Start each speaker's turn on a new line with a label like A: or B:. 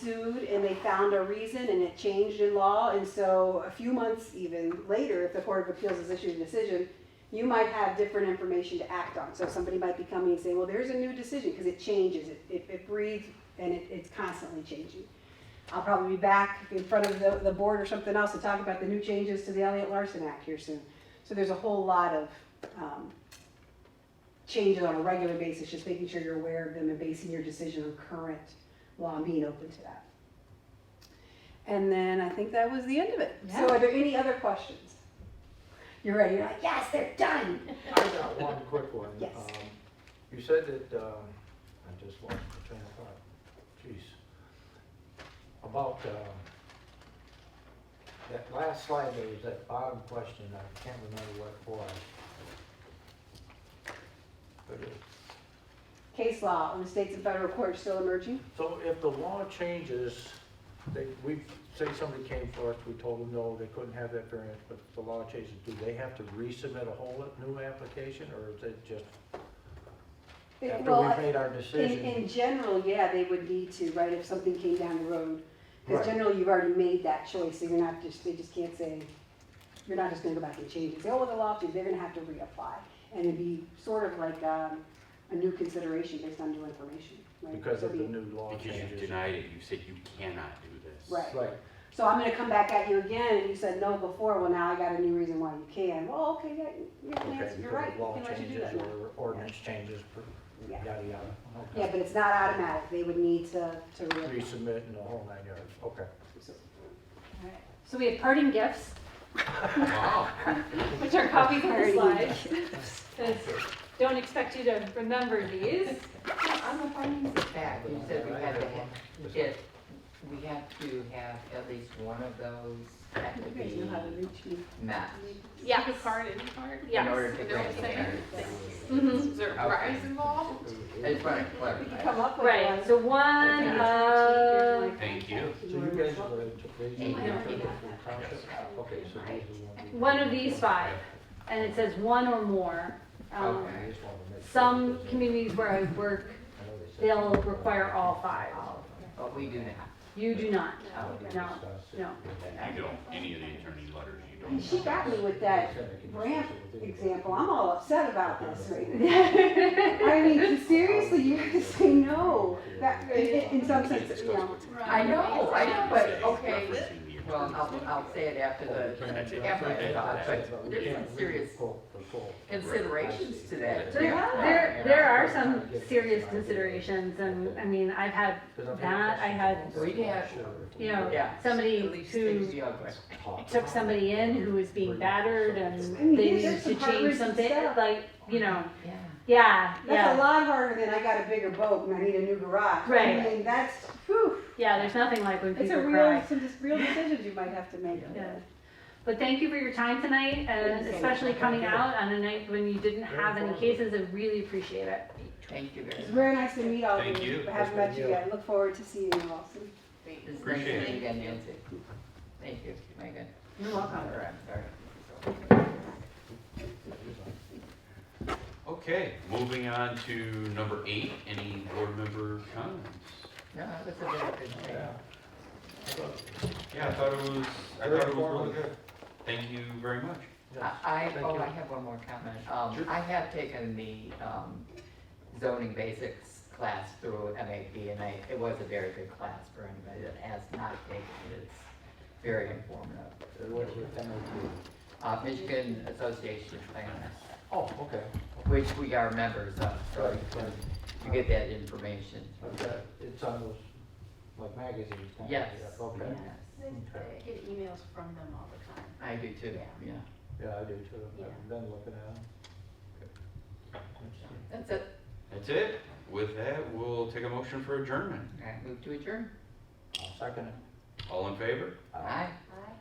A: sued and they found a reason and it changed in law. And so a few months even later, if the Court of Appeals has issued a decision, you might have different information to act on. So somebody might be coming and saying, well, there's a new decision because it changes, it, it, it breathes and it, it's constantly changing. I'll probably be back in front of the, the board or something else to talk about the new changes to the Elliott Larson Act here soon. So there's a whole lot of, um, changes on a regular basis, just making sure you're aware of them and basing your decision on current law and being open to that. And then I think that was the end of it. So are there any other questions? You're ready, you're like, yes, they're done.
B: I got one quick one.
A: Yes.
B: Um, You said that, um, I just lost my train of thought, jeez. About, um, that last slide, there was that bottom question, I can't remember what it was. But it-
A: Case law in the states and federal courts still emerging?
B: So if the law changes, they, we, say somebody came for us, we told them no, they couldn't have that variance, but if the law changes, do they have to resubmit a whole new application, or is it just After
A: Well,
B: we've made our
A: In,
B: decision,
A: in general, yeah, they would need to, right, if something came down the road.
B: Right.
A: Because generally, you've already made that choice, so you're not just, they just can't say, you're not just gonna go back and change it. Say, oh, well, the law changed, they're gonna have to reapply. And it'd be sort of like, um, a new consideration based on new information, right?
B: because of the
A: It'd be-
B: new law
C: Because you've
B: changes.
C: denied it, you said you cannot do this.
A: Right.
B: Right,
A: So I'm gonna come back at you again, and you said no before, well, now I got a new reason why you can. Well, okay, yeah, yeah,
B: okay,
A: Lance, you're
B: because
A: right,
B: of
A: we
B: law
A: can let you do
B: changes
A: that now.
B: or ordinance changes, per-
A: Yeah.
B: yada, yada.
A: Yeah,
B: Okay.
A: but it's not automatic, they would need to, to reapply.
B: Resubmit and the whole nine yards, okay.
A: Alright.
D: So we have parting gifts,
C: Wow.
D: which are copies of the
A: Parting
D: slides. 'Cause Don't expect you to remember these.
E: On the findings of fact, you said we had to
B: Was it-
E: have, get, we have to have at least one of those that
A: You
E: could
A: guys
E: be
A: know how to reach me.
E: met.
D: Yes.
F: card in card?
E: In order
D: Yes.
E: to
F: And they're all
D: Mhm.
E: grant the variance.
F: saying, is there a
E: Okay.
F: prize involved?
E: I just want to
A: We could
E: clarify.
A: come up with one.
D: Right, so one of,
C: Thank you.
B: So you guys are, the- these are the people from township? okay, so these are the ones. we-
D: one of these five, and it says one or more. Um,
E: Okay.
B: I just wanted to make sure
D: Some
B: that was-
D: communities where I work,
B: I know they said-
D: they'll require all five.
E: all of them, But we do not.
D: You do not.
E: Oh,
B: Okay.
D: No, no.
C: You don't, any of the attorney letters, you
A: And
C: don't.
A: she got me with that ramp example. I'm
D: Uh,
A: all upset about this right now. I mean, seriously, you have to say no. That, in, in in some sense, you know.
E: I know, I know, but, okay,
C: Referencing the
E: Well,
C: attorney's
E: I'll, I'll say it after the
C: That's it.
E: after
C: Okay.
E: the thought, but
B: But we
E: there's
B: can't
E: some
B: really
E: serious
B: quote the full-
E: considerations to that.
D: There, there, there are some serious considerations, and, I mean, I've had
B: Because I've
D: That I had-
B: questions
E: We have-
B: Sure.
D: you know,
E: Yeah.
D: somebody
E: At least things
D: who
E: the other way.
B: Talk.
D: took somebody in who was being battered
A: I mean,
D: and they
A: there's
D: needed
A: some
D: to
A: hard-written
D: change something,
A: stuff.
D: like, you know,
E: Yeah.
D: yeah,
A: That's a
D: yeah,
A: lot harder than I got a bigger boat and I need a new garage. I
D: Right.
A: mean, that's, whew.
D: yeah, there's nothing like when
A: It's a
D: people
A: real,
D: cry.
A: some just real decisions you might have to make.
D: Yeah. But thank you for your time tonight, and
A: Thank you so
D: especially
B: much.
D: coming out on a night when you didn't
B: Very
D: have any
B: informative.
D: cases, I really appreciate it.
E: Thank you very
A: It's
E: much.
A: very nice to meet all of you.
C: Thank you.
A: Haven't
B: Nice
A: met
B: to
A: you
B: meet you.
A: yet. Look forward to seeing you all soon.
E: It's nice
C: Appreciate
E: to
C: it.
E: meet you again, Nancy. Thank you, Megan.
D: You're welcome.
E: All right, all right.
C: Okay, moving on to number eight, any board member comments?
E: No, that's a very good thing.
B: Yeah.
C: Yeah, I thought it was, I thought it was wonderful. Thank you very much.
B: Yes.
E: I, I-
B: Thank
E: oh,
B: you.
E: I have one more comment. Um, I have taken the, um, zoning basics class through MAP and I, it was a very good class for anybody that has not taken it. It's very informative.
B: It was with MOP.
E: Uh, Michigan Association of Planners,
B: Oh, okay.
E: which we are members of, so
B: Right, right.
E: you get that information.
B: I've got- It's on those, like magazines. kind of,
E: Yes.
B: yeah, Okay.
E: Yes.
B: Okay.
F: get emails from them all the time.
E: I do too, yeah.
B: Yeah, I do too.
F: Yeah.
B: I've been looking at them.
E: That's it.
C: That's it. With that, we'll take a motion for adjournment.
E: All right, move to adjourn.
B: I'll Second. it.
C: All in favor?
E: Aye.
F: Aye.